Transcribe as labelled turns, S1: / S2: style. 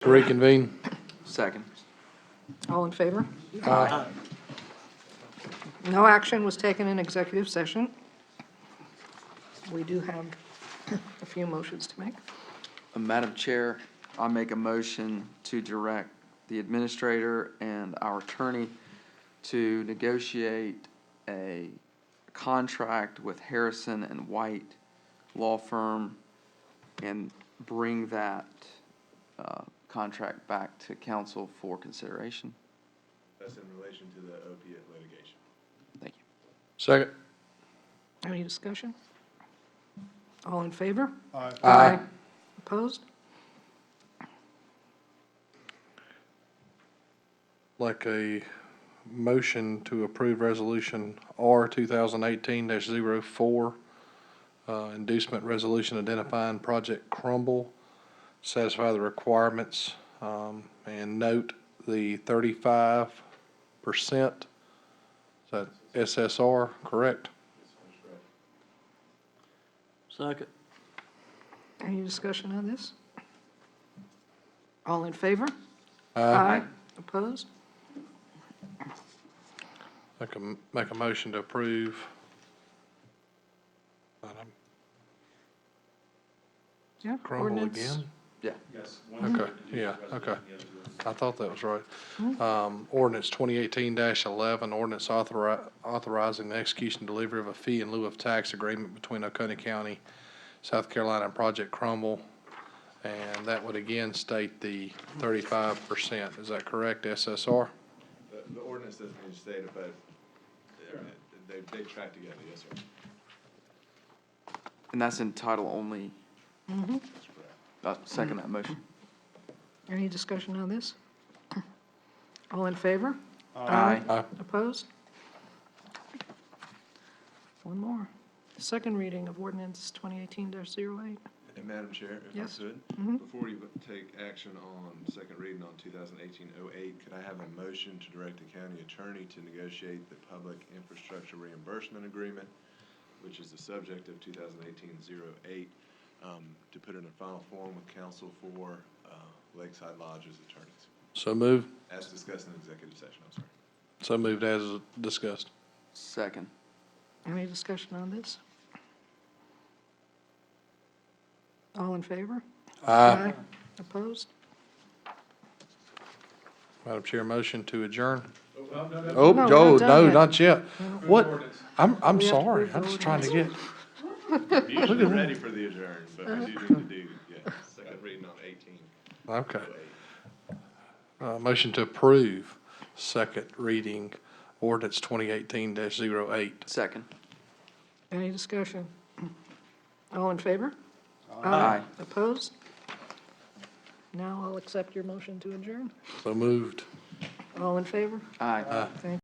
S1: to reconvene.
S2: Second.
S3: All in favor? Aye. No action was taken in executive session. We do have a few motions to make.
S2: Uh, Madam Chair, I make a motion to direct the administrator and our attorney to negotiate a contract with Harrison and White Law Firm and bring that uh, contract back to council for consideration.
S4: That's in relation to the opiate litigation.
S2: Thank you.
S1: Second.
S3: Any discussion? All in favor?
S1: Aye.
S3: Opposed?
S1: Like a motion to approve resolution R two thousand eighteen 4 uh, inducement resolution identifying Project Crumble, satisfy the requirements, um, and note the thirty-five percent. Is that SSR, correct?
S5: Second.
S3: Any discussion on this? All in favor? Opposed?
S1: I can make a motion to approve. Madam
S3: Yeah.
S1: Crumble
S3: ordinance.
S1: again?
S2: Yeah.
S4: Yes.
S3: Mm-hmm.
S1: Okay, yeah, okay. I thought that was right. Um, ordinance twenty eighteen eleven, ordinance authori- authorizing the execution and delivery of a fee in lieu of tax agreement between Oconee County, South Carolina and Project Crumble. And that would again state the thirty-five percent. Is that correct, SSR?
S4: Uh, The, the ordinance doesn't need to state it, but they're- they, they track together, yes, sir.
S2: And that's in title only.
S4: That's correct.
S2: Uh, Second that motion.
S3: Any discussion on this? All in favor?
S2: Aye.
S3: Opposed? One more. Second reading of ordinance 2018-08.
S4: And Madam Chair, if I
S3: Yes.
S4: could, before you take action on second reading on 2018-08, could I have a motion to direct the county attorney to negotiate the public infrastructure reimbursement agreement, which is the subject of 2018-08, um, to put in a final form with counsel for uh, Lakeside Lodge's attorneys,
S1: So moved,
S4: as discussed in executive session, I'm sorry.
S1: so moved as discussed.
S2: Second.
S3: Any discussion on this? All in favor? Aye. Opposed?
S1: Madam Chair, motion to adjourn.
S3: No,
S1: Oh,
S3: we're not
S1: no,
S3: done
S1: no,
S3: yet.
S1: not yet. What?
S4: ordinance.
S1: I'm, I'm
S3: We have to
S1: sorry.
S3: read the
S1: I'm just trying to get,
S4: Usually ready for the adjourn, but we do need to do, yeah, second reading on 18.
S1: okay. Uh, motion to approve second reading ordinance twenty eighteen 8
S2: Second.
S3: Any discussion? All in favor?
S2: Aye.
S3: Opposed? Now I'll accept your motion to adjourn.
S1: So moved.
S3: All in favor?
S2: Aye.
S3: Thank